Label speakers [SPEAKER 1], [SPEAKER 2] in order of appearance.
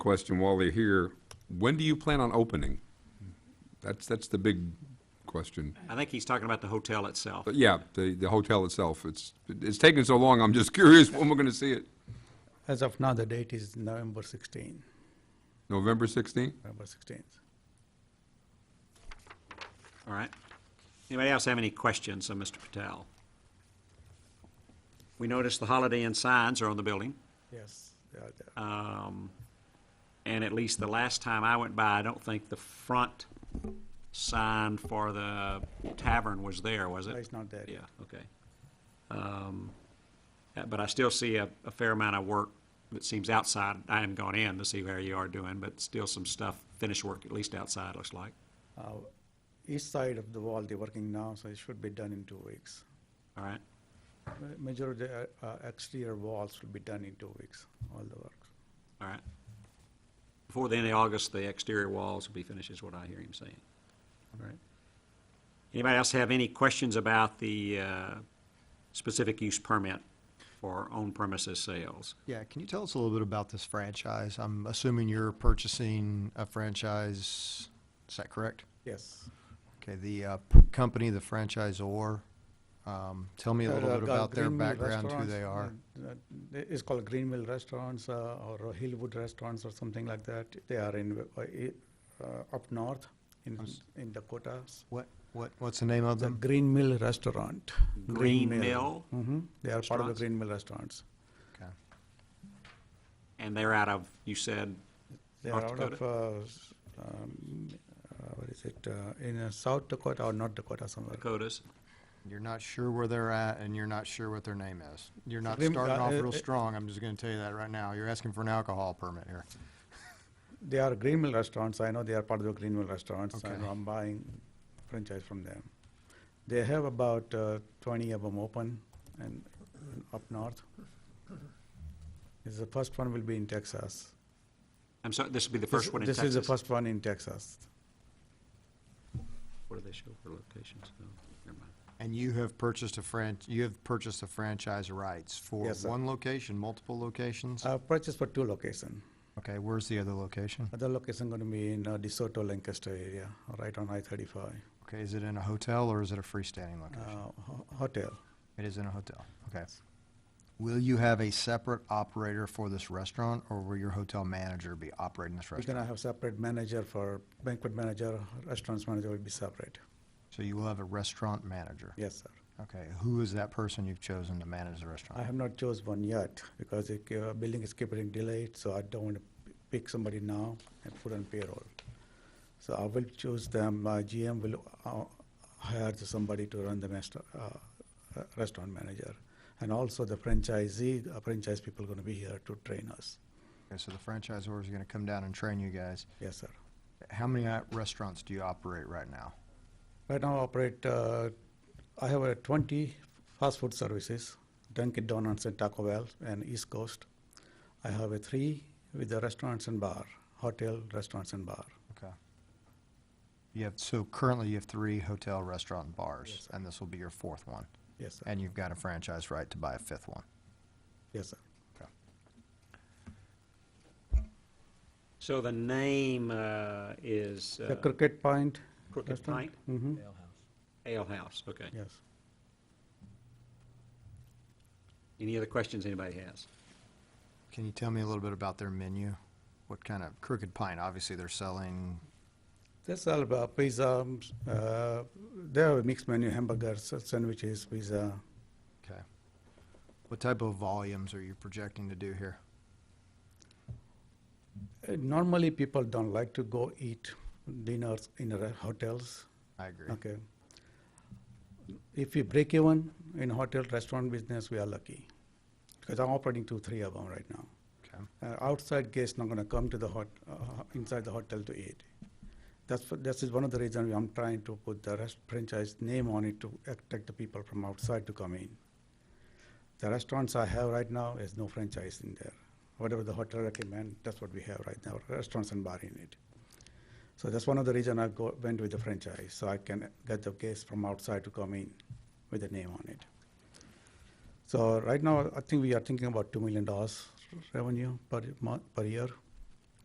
[SPEAKER 1] question while they're here. When do you plan on opening? That's, that's the big question.
[SPEAKER 2] I think he's talking about the hotel itself.
[SPEAKER 1] But yeah, the, the hotel itself, it's, it's taking so long, I'm just curious when we're gonna see it.
[SPEAKER 3] As of now, the date is November 16,
[SPEAKER 1] November sixteenth?
[SPEAKER 3] November 16th.
[SPEAKER 2] All right. Anybody else have any questions of Mr. Patel? We noticed the Holiday Inn signs are on the building,
[SPEAKER 3] Yes, they are there.
[SPEAKER 2] and at least the last time I went by, I don't think the front sign for the tavern was there, was it?
[SPEAKER 3] It's not there
[SPEAKER 2] Yeah,
[SPEAKER 3] yet.
[SPEAKER 2] okay. Um, uh, But I still see a, a fair amount of work that seems outside. I haven't gone in to see how you are doing, but still some stuff, finished work, at least outside, looks like.
[SPEAKER 3] Uh, East side of the wall, they're working now, so it should be done in two weeks.
[SPEAKER 2] All right?
[SPEAKER 3] Ma- Majority uh, uh, exterior walls will be done in two weeks, all the work.
[SPEAKER 2] All right. Before the end of August, the exterior walls will be finished, is what I hear him saying. All right. Anybody else have any questions about the uh, specific use permit for on-premises sales?
[SPEAKER 4] Yeah, can you tell us a little bit about this franchise? I'm assuming you're purchasing a franchise, is that correct?
[SPEAKER 3] Yes.
[SPEAKER 4] Okay, the uh, p- company, the franchisor, um, tell me a
[SPEAKER 3] There
[SPEAKER 4] little
[SPEAKER 3] are
[SPEAKER 4] bit about their
[SPEAKER 3] Green Mill
[SPEAKER 4] background, who
[SPEAKER 3] uh, Restaurants,
[SPEAKER 4] they are.
[SPEAKER 3] uh, uh, It's called Greenmill Restaurants uh, or Hillwood Restaurants or something like that. They are in, uh, i- uh, up north in in Dakotas.
[SPEAKER 4] What, what, what's the name of
[SPEAKER 3] The
[SPEAKER 4] them?
[SPEAKER 3] Green Mill Restaurant.
[SPEAKER 2] Green Mill,
[SPEAKER 3] hmm They are part of the
[SPEAKER 2] Restaurants?
[SPEAKER 3] Green Mill Restaurants.
[SPEAKER 4] Okay.
[SPEAKER 2] and they're out of, you said,
[SPEAKER 3] They
[SPEAKER 2] North
[SPEAKER 3] are out of, uh, s- um, uh, what is it, uh, in uh, South Dakota or North Dakota somewhere.
[SPEAKER 2] Dakotas?
[SPEAKER 4] You're not sure where they're at, and you're not sure what their name is. You're not
[SPEAKER 3] Green-
[SPEAKER 4] starting
[SPEAKER 3] uh,
[SPEAKER 4] off
[SPEAKER 3] uh,
[SPEAKER 4] real
[SPEAKER 3] uh,
[SPEAKER 4] strong, I'm just gonna tell you that right now. You're asking for an alcohol permit here.
[SPEAKER 3] They are Green Mill Restaurants, I know they are part of the Green Mill Restaurants, and
[SPEAKER 4] Okay.
[SPEAKER 3] I'm buying franchise from them. They have about uh, twenty of them open and and up north. This is the first one will be in Texas.
[SPEAKER 2] I'm sorry, this would be the
[SPEAKER 3] This-
[SPEAKER 2] first one in Texas?
[SPEAKER 3] This is the first one in Texas.
[SPEAKER 2] What do they show for locations? No, never mind.
[SPEAKER 4] And you have purchased a franch, you have purchased the franchise rights for
[SPEAKER 3] Yes, sir.
[SPEAKER 4] one location, multiple locations?
[SPEAKER 3] I purchased for two location.
[SPEAKER 4] Okay, where's the other location?
[SPEAKER 3] Other location gonna be in uh, DeSoto, Lancaster area, right on I thirty-five,
[SPEAKER 4] Okay, is it in a hotel or is it a freestanding
[SPEAKER 3] Uh,
[SPEAKER 4] location?
[SPEAKER 3] hotel.
[SPEAKER 4] It is in a hotel, okay. Will you have a separate operator for this restaurant, or will your hotel manager be operating this
[SPEAKER 3] We're gonna
[SPEAKER 4] restaurant?
[SPEAKER 3] have separate manager for banquet manager, restaurants manager will be separate.
[SPEAKER 4] So you will have a restaurant manager?
[SPEAKER 3] Yes, sir.
[SPEAKER 4] Okay, who is that person you've chosen to manage the
[SPEAKER 3] I
[SPEAKER 4] restaurant?
[SPEAKER 3] have not chose one yet because the uh, building is keeping delayed, so I don't want to pick somebody now and put on payroll. So I will choose them, my GM will uh, hire somebody to run the master, uh, uh, restaurant manager. And also the franchisee, the franchise people gonna be here to train us.
[SPEAKER 4] Okay, so the franchisor is gonna come down and train you guys.
[SPEAKER 3] Yes, sir.
[SPEAKER 4] How many uh, restaurants do you operate right now?
[SPEAKER 3] Right now I operate, uh, I have uh, 20 fast food services, Dunkin' Donuts and Taco Bell and East Coast. I have a three with the restaurants and bar, hotel, restaurants and bar.
[SPEAKER 4] Okay. You have, so currently you have three hotel, restaurant, and bars,
[SPEAKER 3] sir.
[SPEAKER 4] and this will be your fourth one.
[SPEAKER 3] Yes, sir.
[SPEAKER 4] And you've got a franchise right to buy a fifth one.
[SPEAKER 3] Yes, sir.
[SPEAKER 2] So the name uh, is
[SPEAKER 3] The
[SPEAKER 2] uh,
[SPEAKER 3] Cricket Point,
[SPEAKER 2] Crooked
[SPEAKER 3] restaurant?
[SPEAKER 2] Pint
[SPEAKER 3] hmm
[SPEAKER 2] uh, Ale House, okay.
[SPEAKER 3] yes.
[SPEAKER 2] Any other questions anybody has?
[SPEAKER 4] Can you tell me a little bit about their menu? What kind of Crooked Pine? Obviously, they're selling.
[SPEAKER 3] They sell uh, pizza, um, s- uh, they have a mixed menu, hamburgers, uh, sandwiches, pizza.
[SPEAKER 4] Okay. What type of volumes are you projecting to do here?
[SPEAKER 3] Uh, Normally, people don't like to go eat dinners in re- hotels.
[SPEAKER 4] I agree.
[SPEAKER 3] Okay. If we break even in hotel restaurant business, we are lucky, because I'm operating two, three of them right now.
[SPEAKER 4] Okay.
[SPEAKER 3] Uh, outside guests not gonna come to the hot, uh, inside the hotel to eat. That's, what- this is one of the reasons I'm trying to put the rest franchise name on it to attract the people from outside to come in. The restaurants I have right now is no franchise in there. Whatever the hotel recommend, that's what we have right now, restaurants and bar in it. So that's one of the reason I go, went with the franchise, so I can get the guests from outside to come in with a name on it. So right now, I think we are thinking about two million dollars revenue per month, per year.